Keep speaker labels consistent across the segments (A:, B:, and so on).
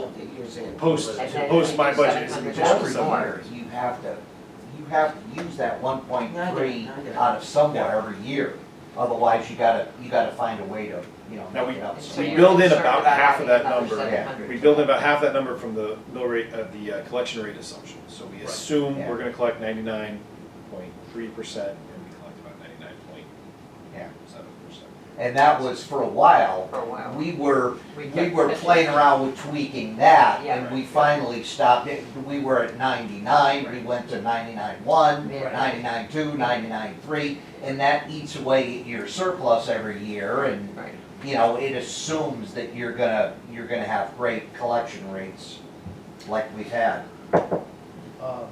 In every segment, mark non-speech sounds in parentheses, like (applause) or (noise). A: budget that you're saying.
B: Post,
A: And then
B: post my
A: it's
B: budget is
A: 700.
B: an additional
C: Every
B: seven
C: year,
B: hundred.
C: you have to, you have to use that one point
A: I get
C: three
A: it, I get it.
C: out of somewhere every year. Otherwise, you gotta, you gotta find a way to, you know,
B: Now,
C: make it up.
A: So
B: we
A: you're
B: build in
A: concerned
B: about half
A: having
B: of that
A: another
B: number.
A: 700.
B: We build in about half that number from the mill rate, uh, the uh, collection rate assumption. So we
D: Right.
B: assume
C: Yeah.
B: we're gonna collect ninety-nine point three percent, and we collect about ninety-nine point
C: Yeah.
B: seven percent.
C: And that was for a while.
A: For a while.
C: We were, we
A: kept
C: were
A: pushing.
C: playing around with tweaking that,
A: Yeah.
C: and we finally stopped it. We were at ninety-nine, we went to ninety-nine one,
A: Yeah.
C: ninety-nine two, ninety-nine three, and that eats away at your surplus every year, and
A: Right,
C: you know, it assumes that you're gonna, you're gonna have great collection rates like we've had.
D: Uh,
A: um,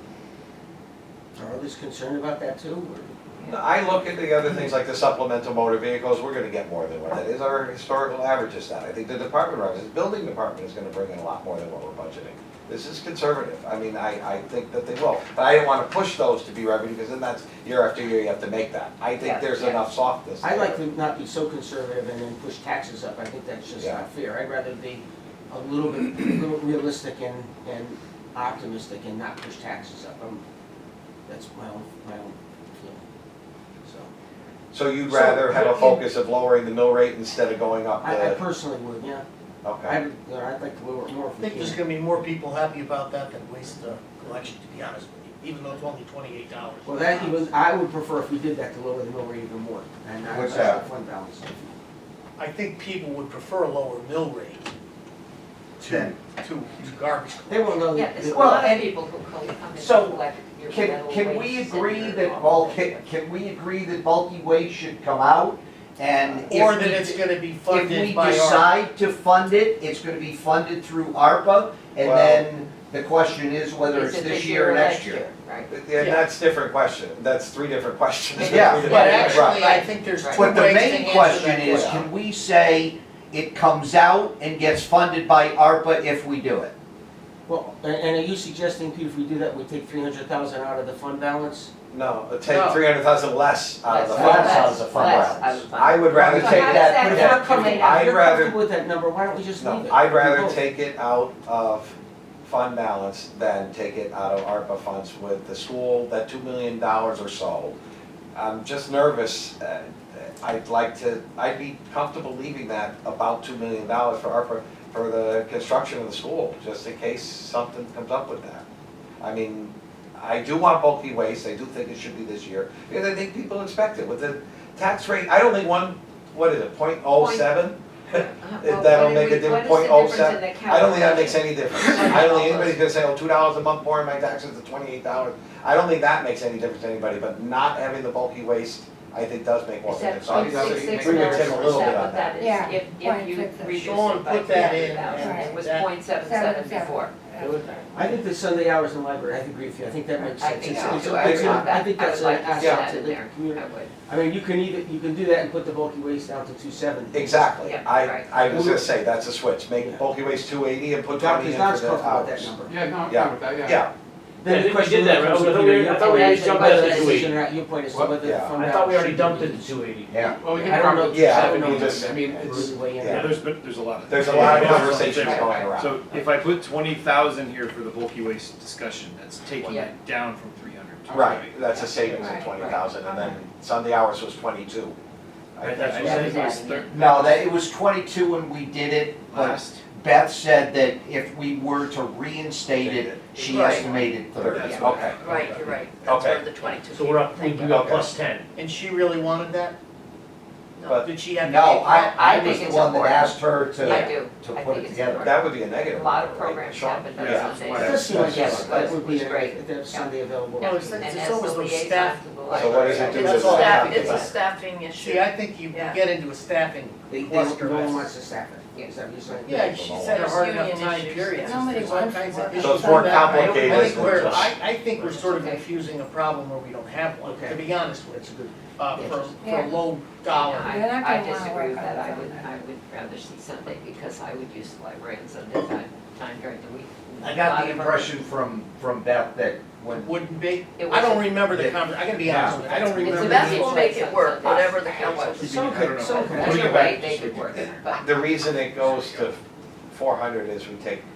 A: are others concerned about that too, or?
E: No, I look at the other things like the supplemental motor vehicles, we're gonna get more than what that is, our historical average is that. I think the department, runs- the building department is gonna bring in a lot more than what we're budgeting. This is conservative, I mean, I, I think that they will, but I didn't wanna push those to be revenue, because then that's, year after year, you have to make that. I
A: Yeah,
E: think there's
A: yeah.
E: enough softness
A: I
E: there.
A: like to not be so conservative and then push taxes up, I think that's just
E: Yeah.
A: not fair, I'd rather be a little bit, a little realistic and, and optimistic and not push taxes up, I'm, that's my own, my own feeling, so.
E: So you'd
A: So,
E: rather have a
A: you-
E: focus of lowering the mill rate instead of going up
A: I, I
E: the,
A: personally would, yeah,
E: okay,
A: I'd, I'd like to lower it more
D: I
A: if we
D: think there's
A: can.
D: gonna be more people happy about that than waste uh, collection, to be honest with you, even though it's only twenty-eight dollars.
A: Well, that even, I would prefer if we did that to lower the mill rate even more, and I,
C: What's
A: that's
C: that?
A: the fund balance.
D: I think people would prefer a lower mill rate to, to, to garbage collection.
A: They won't know.
F: Yeah, there's a
A: that-
C: Well,
F: lot of
C: and-
F: people who co- come in
C: so,
F: and collect your metal
C: Can,
F: waste.
C: can we
F: and
C: agree
F: your
C: that
F: all
C: bulky, can we agree that bulky waste should come out? And if
D: Or that
C: we-
D: it's gonna be
C: if we
D: funded by our.
C: decide to fund it, it's gonna be funded through ARPA, and
E: Well-
C: then the question is whether
F: Is
C: it's
F: it
C: this year or next year.
F: Right.
E: and that's different question, that's three different questions.
C: Yeah,
E: (laughs) Three
D: But
E: different-
D: actually, I
F: Right.
D: think there's two ways to
C: But
D: answer
C: the main question
D: that
C: is, can we say it comes out and gets funded by ARPA if we do it?
A: Well, and, and are you suggesting, Pete, if we do that, we take three hundred thousand out of the fund balance?
E: No, take
D: No.
E: three hundred thousand less out of the
F: Less,
E: fund.
C: Less out of the
F: less,
C: fund
F: less
C: balance.
F: out of the
E: I
F: fund.
E: would rather
C: So
E: take
F: how does
E: that,
F: that
A: But if
F: Yeah.
A: we're comfortable, if
E: I'd
A: you're
E: rather-
A: comfortable with that number, why don't we just leave
E: no,
A: it?
E: I'd rather
A: Vote.
E: take it out of fund balance than take it out of ARPA funds with the school, that two million dollars or so. I'm just nervous, uh, I'd like to, I'd be comfortable leaving that about two million dollars for ARPA, for the construction of the school, just in case something comes up with that. I mean, I do want bulky waste, I do think it should be this year, because I think people expect it, with the tax rate, I don't think one, what is it, point oh seven?
F: Uh,
E: If
F: well,
E: that'll
F: what
E: make
F: do
E: a
F: we-
E: different
F: what is the
E: 0.07?
F: difference in the
E: I don't think that makes
F: calculation?
E: any difference. I don't think anybody's gonna say, oh, two dollars a month more in my taxes to twenty-eight dollars. I don't think that makes any difference to anybody, but not having the bulky waste, I think does make more
F: Is
E: of
F: that
E: a difference.
F: point six six
E: We would
F: dollars,
E: tip a
F: is
E: little bit
F: that
E: on
F: what
E: that.
F: that is?
G: Yeah,
F: If, if you
G: 0.66.
F: reduce
D: Sean,
F: it by
D: put that
F: three
D: in,
F: hundred thousand,
G: yeah,
F: it was
D: that-
F: point seven
G: Seven,
F: seven
G: seven.
F: before.
A: I think the Sunday hours in the library, I agree with you, I think that makes
F: I
A: sense.
F: think
A: It's-
F: so,
A: it's-
F: too. I
A: it's-
F: agree with
A: I
F: that.
A: think
F: I
A: that's
F: would
A: an
F: like to see
A: asset
F: that
A: to
F: in
A: the
F: there. I
A: community.
F: would.
A: I mean, you can either, you can do that and put the bulky waste down to two seventy.
E: Exactly.
F: Yeah,
E: I,
F: right.
E: I was gonna say, that's a switch.
A: Yeah.
E: Make bulky waste two eighty and put
A: Doc,
E: twenty
A: is
E: in for the
A: not
E: hours.
A: as comfortable with that number.
H: Yeah, no, I'm
E: Yeah.
H: fine with that, yeah.
E: Yeah,
A: Then
I: Yeah,
A: the
I: we
A: question
I: did that,
A: really
I: right?
A: comes
I: I
A: to
I: thought we-
A: your-
I: I thought we already jumped out of the
A: your
I: two eight.
A: decision or Your point is to
E: What?
A: whether the
E: Yeah.
A: fund
I: I thought we
A: balance
I: already
A: should
I: dumped
A: be-
I: it to two eighty.
C: Yeah.
H: Well, we
A: I
H: can
A: don't know.
H: probably
E: Yeah, I
H: seven
E: don't
H: on
E: know.
H: this, I mean, it's,
A: Really weigh in.
E: Yeah.
B: Yeah, there's, been there's a lot of.
E: there's a lot of
B: Yeah.
E: conversations
B: Yeah.
E: going around.
B: So if I put twenty thousand here for the bulky waste discussion, that's taking
F: Yeah.
B: it down from three hundred to
E: Right, that's a savings
F: Right,
E: of
F: right.
E: twenty thousand, and then Sunday hours was twenty-two. I
B: Right,
E: think.
B: that's what
F: Yeah.
B: I think it was thir-
C: No, that, it was twenty-two when we did it, but
B: last.
C: Beth said that if we were to reinstate it, she
F: Right.
C: estimated thirty.
B: That's
E: Yeah.
B: what-
E: Okay.
F: Right, you're right. That's
E: Okay.
F: where the twenty-two.
I: So we're up, we
F: Thank
I: we
F: you.
I: got
E: Okay.
I: plus ten.
D: And she really wanted that?
E: But-
D: Did she have to?
C: No,
D: pay for
C: I,
D: that?
C: I
F: I
C: was
F: think
C: the
F: it's
C: one that
F: important.
C: asked her
F: I
C: to,
F: do.
C: to
F: I think
C: put it
F: it's
C: together.
E: That would be a negative.
F: A lot of
E: right,
F: programs
E: Sean?
F: happen on
E: Yeah.
F: Sundays.
A: It does seem like,
E: That's-
A: yes, that would be
F: that's
A: great,
F: great.
A: to have Sunday available.
D: Yeah.
F: And
D: Oh, it's- it's
F: as
D: always
F: the
D: those
F: liaison
D: staff-
F: to the
E: So what does
F: library,
E: it do
D: It's
E: to
D: a
E: the
D: staff-
E: staff?
D: it's a
F: staffing
D: See, I think you
F: Yeah.
D: get into a staffing
A: They, they don't,
D: cluster.
A: no one
D: mess.
A: wants to staff it, is that what you're saying?
D: Yeah, she's had a
F: There's
D: hard enough
F: union
D: time
F: issues.
D: period.
G: Nobody
D: There's all
G: wants
D: kinds
G: to
D: of
G: work.
D: issues
E: So it's more
D: with that. I don't- I
E: complicated
D: think
E: than
D: we're,
E: just-
D: I, I think we're sort of infusing a problem where we don't have one, to
A: Okay.
D: be honest with
A: That's a good.
D: you, uh, for, for
G: Yeah.
D: low dollar.
G: They're not
F: I, I
G: gonna wanna
F: disagree with
G: work
F: that,
G: on
F: I would,
G: Sunday.
F: I would rather see Sunday, because I would use the library on Sunday time, time during the week. A
C: I
F: lot
C: got the
F: of our-
C: impression from, from Beth that when
D: Wouldn't be,
F: It
D: I don't
F: was-
D: remember the
C: Yeah.
D: conver, I gotta be honest with you, I don't
F: It's
D: remember.
F: a
D: the-
F: best will make it work, whatever the council.
B: I don't know.
A: Some could-
B: Putting
F: There's
B: it
F: a
B: back
F: way
B: to
F: they
B: six.
F: could work, but.
E: The reason it goes to four hundred is we take